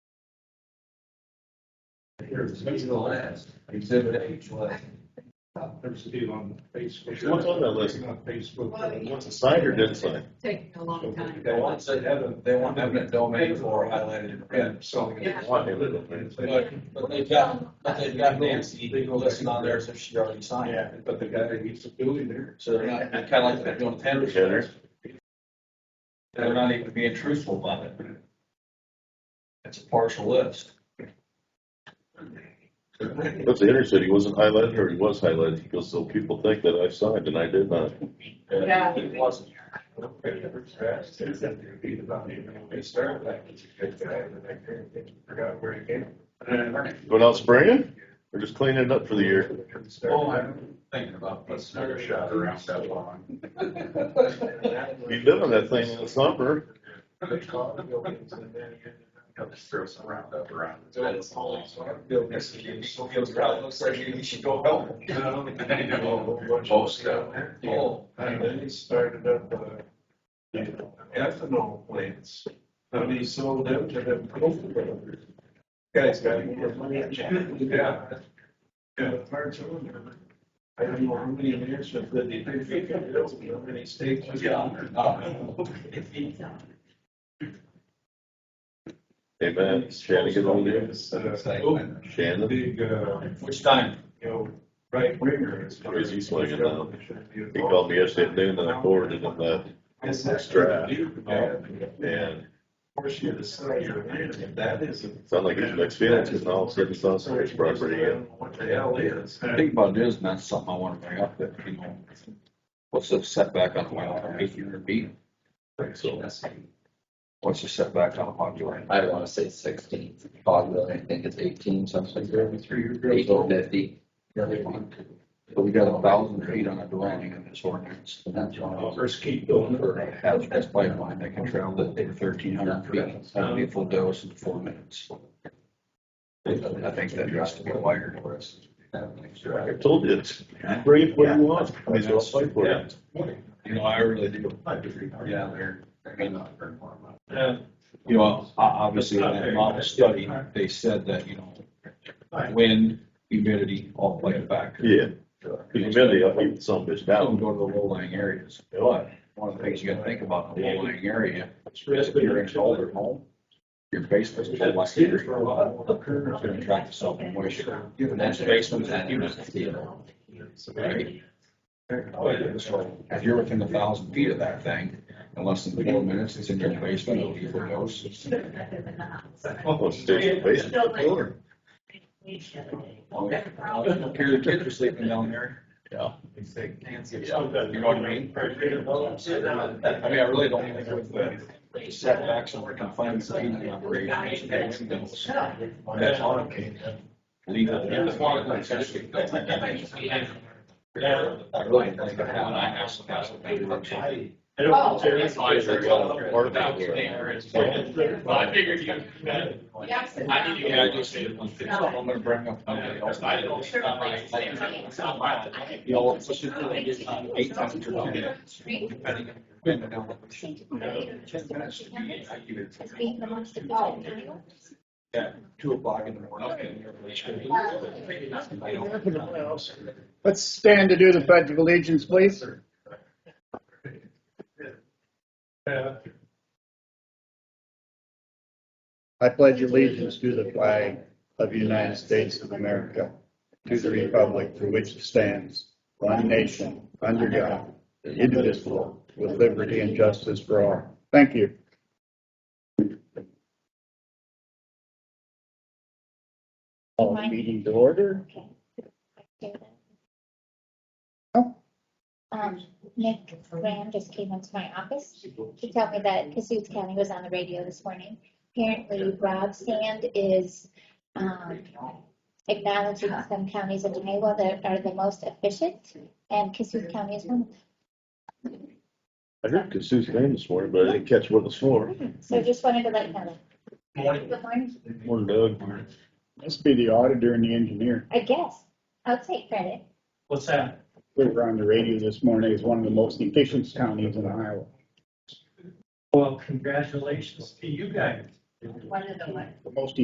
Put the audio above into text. records, digital as exhibit H was. There's two on Facebook. What's on that list? On Facebook. What's a sign or didn't sign? taking a long time. They want, they have, they want eminent domain or highlighted in red, so. Yeah. uh, But, but they've got, but they've got Nancy listed on there, so she already signed. Yeah, but the guy that needs to building there. So they're not, kind of like they're doing tenders. They're not even being truthful about it. It's a partial list. But the inner city wasn't highlighted or he was highlighted. He goes, so people think that I signed and I did not. Yeah. It wasn't. They started like, it's a good guy, and I forgot where he came. Going out spraying or just cleaning it up for the year? Oh, I'm thinking about putting another shot around that lawn. You live on that thing in the summer. They call the buildings and then they'll just throw some round up around. That's all. This is, you still feels right, It looks like you should go help. them. I know. Most of Oh, And then he started up, uh, you know, ethanol plants. And he sold them to them. coal brokers. Guys got. Yeah. Yeah, hard to remember. I don't know how many years of the, they think, how many states. yeah. Hey man, Shannon, get on there. uh, oh, Shannon. Shannon, Big, uh, Which time? you know, right winger is. Or is he swinging now? he called me yesterday at noon and I forwarded him that. It's Draft. Oh, Yeah. And Of course, you decide you're in, if that isn't. it sounded like his next feeling, because all of a sudden it's on somebody's property. and What the hell is? I think about it is, and that's something I wanna bring up, that, you know, what's the setback on a mile from eight hundred feet? So What's the setback on a popular? I want to say sixteen, Bogwell, I think it's eighteen, something like that, eighteen fifty. But we got a thousand feet on a dwelling in this ordinance, and that's on a First keep going. for a hazardous pipeline that can travel that thirteen hundred feet, that'd be a full dose in four minutes. I think that has to be wired for us. I told you, it's bring it where you want. I just don't fight for it. You know, I really do, Yeah. yeah, there, you know, o- obviously, in that model study, they said that, you know, wind, humidity, all play it back. Yeah, because humidity, I eat some bitch Now we down. go to the low lying areas, but one of the things you gotta think about in the low lying area, if you're in an older home, your basement's low lying area. It's gonna attract the salt and moisture. And that's basement is humid, right? So If you're within a thousand feet of that thing, in less than four minutes, it's in your basement, it'll be for those. Oh, it's in the basement. Oh, yeah. Here the kids are sleeping down there. Yeah. You know what I mean? I mean, I really don't think with the setbacks and confinements of the operations, that's those- that's on legal. Yeah, it's one of the I really think that how I have some guys with big work. I figured you. Yes. I need to Yeah, I just, I'm gonna bring up. somebody else. You know, especially if they get on eight times per hour, depending on your wind and elevation. Ten minutes to be, I give it two o'clock in the morning. I don't- Let's stand to do the pledge of allegiance, please. I pledge allegiance to the flag of the United States of America, to the republic for which it stands, one nation, under God, indivisible, with liberty and justice for all. Thank you. All meeting to order. Um, Nick Graham just came into my office to tell me that Cassuth County was on the radio this morning. Apparently Rob Sand is, um, acknowledging some counties in Iowa that are the most efficient, and Cassuth County is one. of them. I heard Kasu's name this morning, but I didn't catch what it was for. So just wanted to let you know that. Morning. Good morning. Morning, Doug. Must be the auditor and the engineer. I guess, I'll take credit. What's that? We were on the radio this morning as one of the most efficient counties in Iowa. Well, congratulations to you guys. One of the ones. The most